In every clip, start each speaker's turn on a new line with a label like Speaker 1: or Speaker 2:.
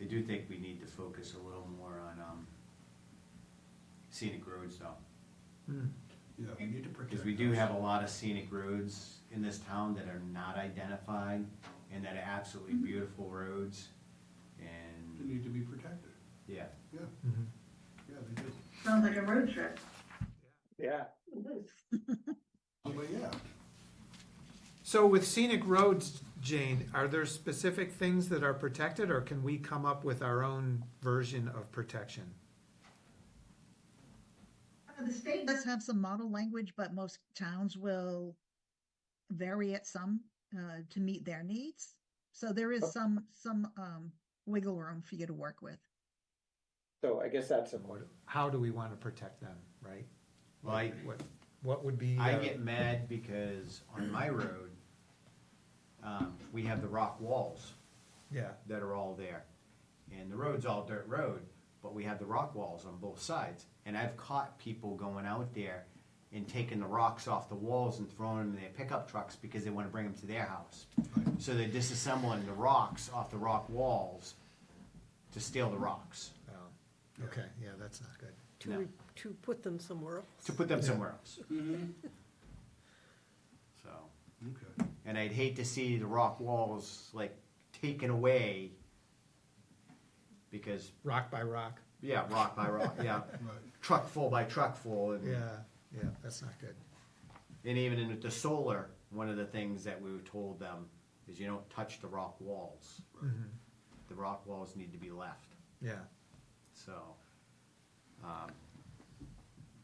Speaker 1: I do think we need to focus a little more on, um, scenic roads though.
Speaker 2: Hmm.
Speaker 3: Yeah, we need to protect.
Speaker 1: Because we do
Speaker 3: those.
Speaker 1: have a lot of scenic roads in this town that are not identified and that are absolutely beautiful roads.
Speaker 3: They
Speaker 1: And,
Speaker 3: need to be protected,
Speaker 1: yeah,
Speaker 3: yeah,
Speaker 2: Mhm.
Speaker 3: yeah, they do.
Speaker 4: Sounds like a road trip.
Speaker 5: Yeah.
Speaker 3: Oh, But yeah,
Speaker 2: So with scenic roads, Jane, are there specific things that are protected, or can we come up with our own version of protection?
Speaker 4: Uh, The state
Speaker 6: does have some model language, but most towns will vary it some uh, to meet their needs. So there is some, some um, wiggle room for you to work with.
Speaker 5: So I guess that's important.
Speaker 2: Or How do we want to protect them, right?
Speaker 1: like,
Speaker 2: What, what would be?
Speaker 1: I
Speaker 2: uh,
Speaker 1: get mad because on my road, um, we have the rock walls
Speaker 2: Yeah,
Speaker 1: that are all there. And the road's all dirt road, but we have the rock walls on both sides. And I've caught people going out there and taking the rocks off the walls and throwing them in their pickup trucks because they wanna bring them to their house. So they're disassembling the rocks off the rock walls to steal the rocks,
Speaker 2: well, okay, yeah, that's not good.
Speaker 7: to,
Speaker 1: No.
Speaker 7: re- to put them somewhere else.
Speaker 1: to put them somewhere else. So,
Speaker 3: okay,
Speaker 1: and I'd hate to see the rock walls like taken away because,
Speaker 2: Rock by rock,
Speaker 1: yeah, rock by rock, yeah.
Speaker 3: right.
Speaker 1: Truck full by truck full and.
Speaker 2: yeah, yeah, that's not good.
Speaker 1: And even in the solar, one of the things that we were told them is you don't touch the rock walls.
Speaker 2: Mhm.
Speaker 1: The rock walls need to be left,
Speaker 2: Yeah,
Speaker 1: so. um,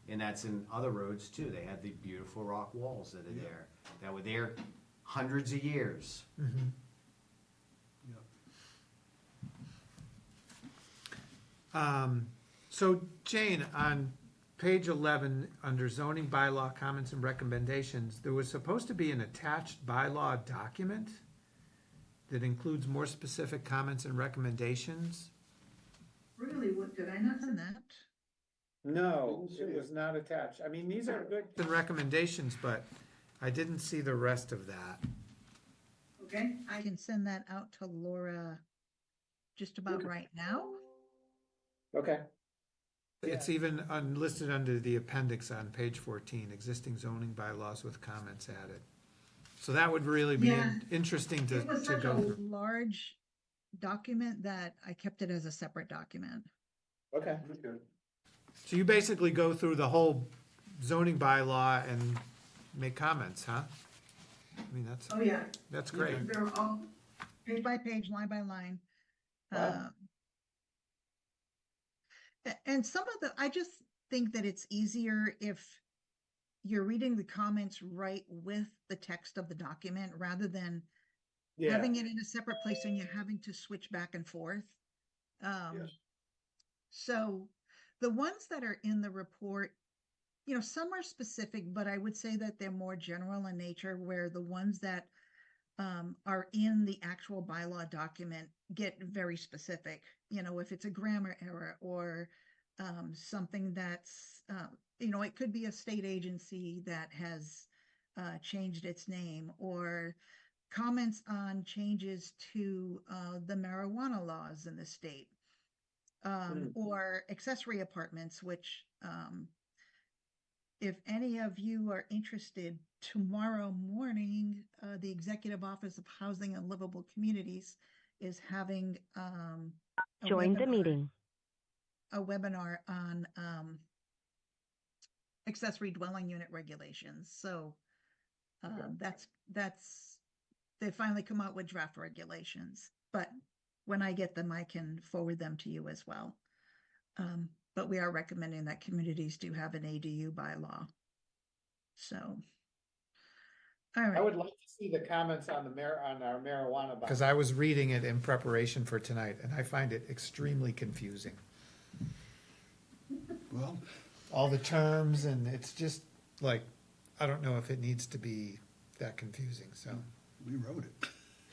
Speaker 1: And that's in other roads too, they have the beautiful rock walls that are there, that were there hundreds of years.
Speaker 2: Mhm.
Speaker 3: Yeah.
Speaker 2: Um, so Jane, on page eleven, under zoning bylaw comments and recommendations, there was supposed to be an attached bylaw document that includes more specific comments and recommendations.
Speaker 4: really, what, did I not send
Speaker 6: Isn't
Speaker 4: that?
Speaker 6: that?
Speaker 5: No,
Speaker 3: Didn't
Speaker 5: it
Speaker 3: see
Speaker 5: was not attached. I mean, these are good,
Speaker 2: The recommendations, but I didn't see the rest of that.
Speaker 4: Okay,
Speaker 6: I can send that out to Laura just about
Speaker 5: Okay.
Speaker 6: right now.
Speaker 5: okay.
Speaker 2: It's even un- listed under the appendix on page fourteen, existing zoning bylaws with comments added. So that would really be in- interesting to,
Speaker 4: It was
Speaker 2: to
Speaker 4: such
Speaker 2: go
Speaker 4: a
Speaker 2: through.
Speaker 6: Large document that I kept it as a separate document.
Speaker 5: Okay.
Speaker 2: So you basically go through the whole zoning bylaw and make comments, huh? I mean, that's,
Speaker 4: oh yeah,
Speaker 2: that's great.
Speaker 4: they're all,
Speaker 6: page by page, line by line.
Speaker 5: Wow.
Speaker 6: um, a- And some of the, I just think that it's easier if you're reading the comments right with the text of the document rather than
Speaker 5: Yeah,
Speaker 6: having it in a separate place and you're having to switch back and forth. Um,
Speaker 3: Yes.
Speaker 6: So the ones that are in the report, you know, some are specific, but I would say that they're more general in nature, where the ones that um, are in the actual bylaw document get very specific. You know, if it's a grammar error or um, something that's, uh, you know, it could be a state agency that has uh, changed its name or comments on changes to uh, the marijuana laws in the state um, or accessory apartments, which um, if any of you are interested, tomorrow morning, uh, the Executive Office of Housing and Livable Communities is having um, a
Speaker 8: Join the
Speaker 6: webinar-
Speaker 8: meeting.
Speaker 6: a webinar on um, accessory dwelling unit regulations. So uh, that's that's they finally come out with draft regulations. But when I get them, I can forward them to you as well. Um, but we are recommending that communities do have an ADU bylaw. So, all
Speaker 5: I
Speaker 6: right.
Speaker 5: would like to see the comments on the mar, on our marijuana. bylaw.
Speaker 2: Because I was reading it in preparation for tonight and I find it extremely confusing.
Speaker 3: Well,
Speaker 2: All the terms and it's just like, I don't know if it needs to be that confusing,
Speaker 4: Hmm.
Speaker 2: so.
Speaker 3: we wrote it,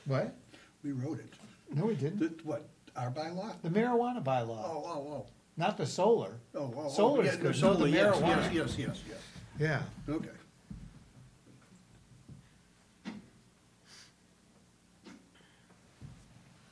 Speaker 2: What?
Speaker 3: we wrote it.
Speaker 2: No, it didn't.
Speaker 3: That, what, our bylaw?
Speaker 2: The marijuana
Speaker 3: Oh,
Speaker 2: bylaw,
Speaker 3: oh, oh,
Speaker 2: not the solar.
Speaker 3: oh, oh, oh.
Speaker 2: Solar's
Speaker 3: yeah, no,
Speaker 2: good, not the
Speaker 3: solar, yes,
Speaker 2: marijuana.
Speaker 3: Yes, yes, yes, yes,
Speaker 2: Yeah.
Speaker 3: okay.